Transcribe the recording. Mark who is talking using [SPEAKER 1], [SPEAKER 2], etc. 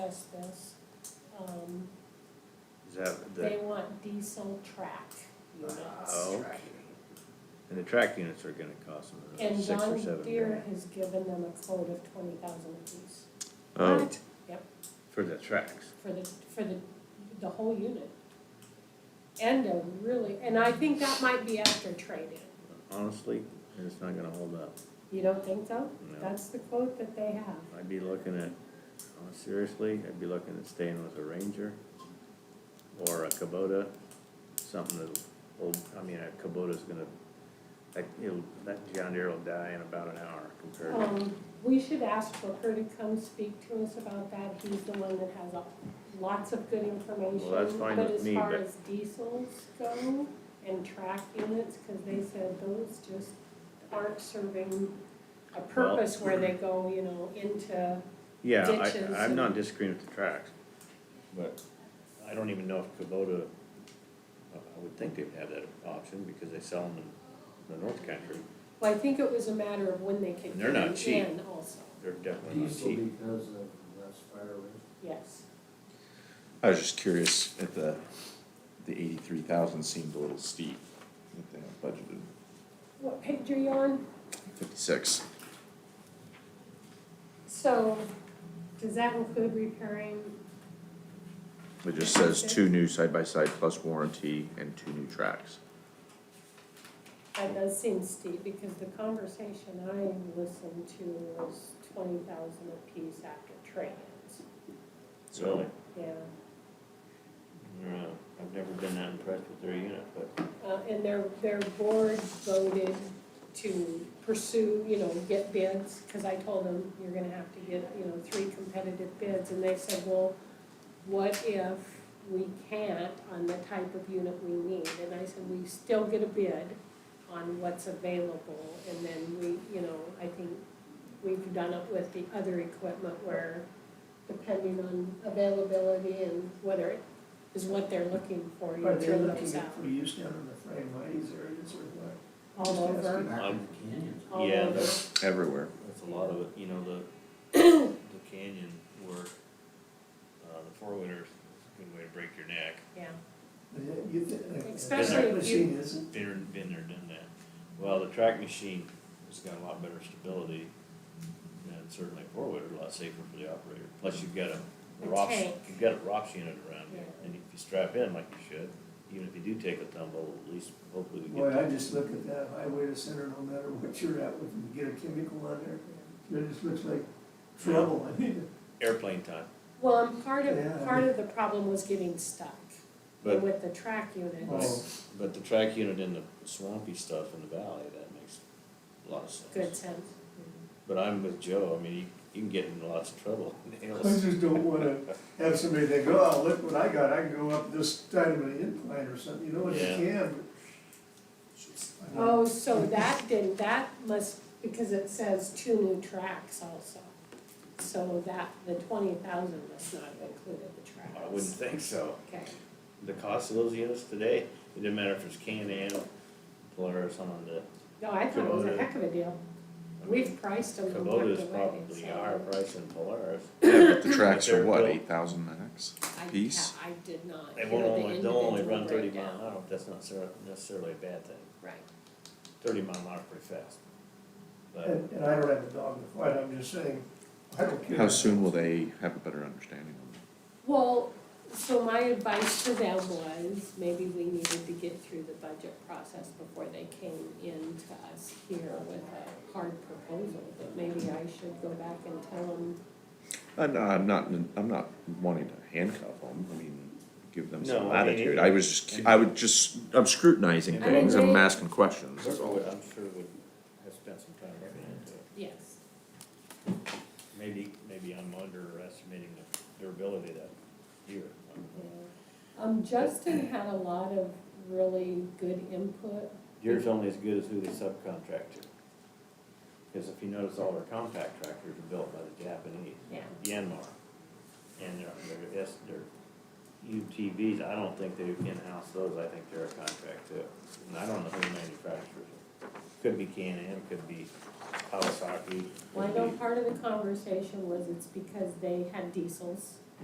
[SPEAKER 1] discuss this. Um,
[SPEAKER 2] Is that
[SPEAKER 1] They
[SPEAKER 2] the,
[SPEAKER 1] want diesel track units.
[SPEAKER 2] oh, and the track units are gonna cost them another
[SPEAKER 1] And
[SPEAKER 2] six or
[SPEAKER 1] John
[SPEAKER 2] seven
[SPEAKER 1] Deere
[SPEAKER 2] grand.
[SPEAKER 1] has given them a quote of twenty thousand apiece
[SPEAKER 2] Oh,
[SPEAKER 3] What?
[SPEAKER 2] for the tracks.
[SPEAKER 1] for the, for the, the whole unit. And a really, and I think that might be after trade-in.
[SPEAKER 2] Honestly, it's not gonna hold up.
[SPEAKER 1] You don't think so?
[SPEAKER 2] No,
[SPEAKER 1] That's the quote that they have.
[SPEAKER 2] I'd be looking at, oh, seriously, I'd be looking at staying with a Ranger or a Kubota, something that'll, old, I mean, a Kubota's gonna, that, it'll, that John Deere will die in about an hour compared to.
[SPEAKER 1] Um, we should ask Booker to come speak to us about that, he's the one that has a- lots of good information.
[SPEAKER 2] Well, that's fine with me,
[SPEAKER 1] But as
[SPEAKER 2] but-
[SPEAKER 1] far as diesels go and track units, cause they said those just aren't serving a purpose where they go, you know, into,
[SPEAKER 2] Yeah,
[SPEAKER 1] ditches
[SPEAKER 2] I, I'm not
[SPEAKER 1] and-
[SPEAKER 2] disagreeing with the tracks, but I don't even know if Kubota, I I would think they'd have that option because they sell them in the north country.
[SPEAKER 1] well, I think it was a matter of when they could
[SPEAKER 2] And they're
[SPEAKER 1] get
[SPEAKER 2] not
[SPEAKER 1] it
[SPEAKER 2] cheap.
[SPEAKER 1] in also,
[SPEAKER 2] They're definitely not
[SPEAKER 4] Diesel
[SPEAKER 2] cheap.
[SPEAKER 4] because of less fire risk.
[SPEAKER 1] yes.
[SPEAKER 3] I was just curious if the, the eighty-three thousand seemed a little steep, if they had budgeted
[SPEAKER 1] What page are you on?
[SPEAKER 3] fifty-six.
[SPEAKER 1] So, does that include repairing,
[SPEAKER 3] It just says two new side-by-side plus warranty and two new tracks.
[SPEAKER 1] That does seem steep, because the conversation I listened to was twenty thousand apiece after trade-ins,
[SPEAKER 3] So,
[SPEAKER 1] yeah.
[SPEAKER 2] No, I've never been that impressed with their unit, but
[SPEAKER 1] Uh, and their, their board voted to pursue, you know, get bids, cause I told them, you're gonna have to get, you know, three competitive bids, and they said, well, what if we can't on the type of unit we need, and I said, we still get a bid on what's available, and then we, you know, I think we've done it with the other equipment where depending on availability and whether it is what they're looking for, you
[SPEAKER 5] But they're
[SPEAKER 1] trim
[SPEAKER 5] looking
[SPEAKER 1] those out.
[SPEAKER 5] at produce down in the Frameways areas or what?
[SPEAKER 1] All over,
[SPEAKER 4] Back in
[SPEAKER 2] Um,
[SPEAKER 4] the canyons.
[SPEAKER 1] all
[SPEAKER 2] Yeah,
[SPEAKER 1] over.
[SPEAKER 2] that's-
[SPEAKER 3] everywhere.
[SPEAKER 2] that's a lot of it, you know, the, the canyon work, uh, the four wheelers, a good way to break your neck.
[SPEAKER 1] Yeah,
[SPEAKER 5] You thi-
[SPEAKER 1] Especially
[SPEAKER 5] That
[SPEAKER 1] if
[SPEAKER 5] machine isn't,
[SPEAKER 2] Been, been there, done that. Well, the track machine has got a lot better stability and certainly four wheeler, a lot safer for the operator. Plus you've got a
[SPEAKER 1] A
[SPEAKER 2] ROPS,
[SPEAKER 1] tank.
[SPEAKER 2] you've got a ROPS unit around you,
[SPEAKER 1] Yeah.
[SPEAKER 2] and if you strap in like you should, even if you do take a tumble, at least hopefully we get.
[SPEAKER 5] boy, I
[SPEAKER 2] that.
[SPEAKER 5] just look at that highway to center, no matter what you're at with, you get a chemical on there, it just looks like trouble, I mean,
[SPEAKER 2] Airplane time,
[SPEAKER 1] well, and part of,
[SPEAKER 5] Yeah.
[SPEAKER 1] part of the problem was getting stuck
[SPEAKER 2] but,
[SPEAKER 1] with the track
[SPEAKER 5] oh,
[SPEAKER 1] units,
[SPEAKER 2] but the track unit in the swampy stuff in the valley, that makes a lot of sense.
[SPEAKER 1] good sense.
[SPEAKER 2] But I'm with Joe, I mean, you, you can get in lots of trouble in the
[SPEAKER 5] I
[SPEAKER 2] hills.
[SPEAKER 5] just don't wanna have somebody think, oh, look what I got, I can go up this side of an incline or something, you know what you
[SPEAKER 2] Yeah.
[SPEAKER 5] can. but-
[SPEAKER 1] Oh, so that didn't, that must, because it says two new tracks also. So that, the twenty thousand must not have included the tracks.
[SPEAKER 2] I wouldn't think so.
[SPEAKER 1] Okay,
[SPEAKER 2] the cost of those units today, it didn't matter if it's Can-Am, Polaris, Honda.
[SPEAKER 1] no, I thought it was a
[SPEAKER 2] Kubota.
[SPEAKER 1] heck of a deal, we've priced them and walked away,
[SPEAKER 2] Kubota is probably a
[SPEAKER 1] so
[SPEAKER 2] higher price than Polaris.
[SPEAKER 3] Yeah, but the tracks are what,
[SPEAKER 2] They're built-
[SPEAKER 3] eight thousand max?
[SPEAKER 1] I,
[SPEAKER 3] piece.
[SPEAKER 1] I did not
[SPEAKER 2] They
[SPEAKER 1] hear
[SPEAKER 2] won't
[SPEAKER 1] the
[SPEAKER 2] only, they'll only
[SPEAKER 1] individual
[SPEAKER 2] run thirty mile
[SPEAKER 1] breakdown.
[SPEAKER 2] an hour, but that's not necessar- necessarily a bad thing,
[SPEAKER 1] Right,
[SPEAKER 2] thirty mile an hour is pretty fast. But,
[SPEAKER 1] Oh.
[SPEAKER 5] And, and I don't have a dog to fight, I'm just saying, I don't care.
[SPEAKER 3] How soon will they have a better understanding of it?
[SPEAKER 1] Well, so my advice to them was, maybe we needed to get through the budget process before they came in to us here with a hard proposal, but maybe I should go back and tell them,
[SPEAKER 3] I'm, I'm not, I'm not wanting to handcuff them, I mean, give them some
[SPEAKER 2] No, I mean,
[SPEAKER 3] latitude,
[SPEAKER 2] it-
[SPEAKER 3] I was just, cu- I would just, I'm scrutinizing
[SPEAKER 2] I
[SPEAKER 3] things,
[SPEAKER 1] agree.
[SPEAKER 3] I'm asking questions, that's
[SPEAKER 2] Kirkwood,
[SPEAKER 3] all.
[SPEAKER 2] I'm sure would have spent some time looking into it.
[SPEAKER 1] yes.
[SPEAKER 2] Maybe, maybe I'm underestimating the durability of that year.
[SPEAKER 1] Um, Justin had a lot of really good input,
[SPEAKER 2] Yours only as good as who they subcontract to. Because if you notice, all our compact tractors are built by the Japanese.
[SPEAKER 1] yeah.
[SPEAKER 2] Yanmar. And their, their, S- their UTVs, I don't think they in-house those, I think they're a contract too. And I don't know who manufactures them. Could be Can-Am, could be Kawasaki. could
[SPEAKER 1] Well, I know
[SPEAKER 2] be-
[SPEAKER 1] part of the conversation was it's because they had diesels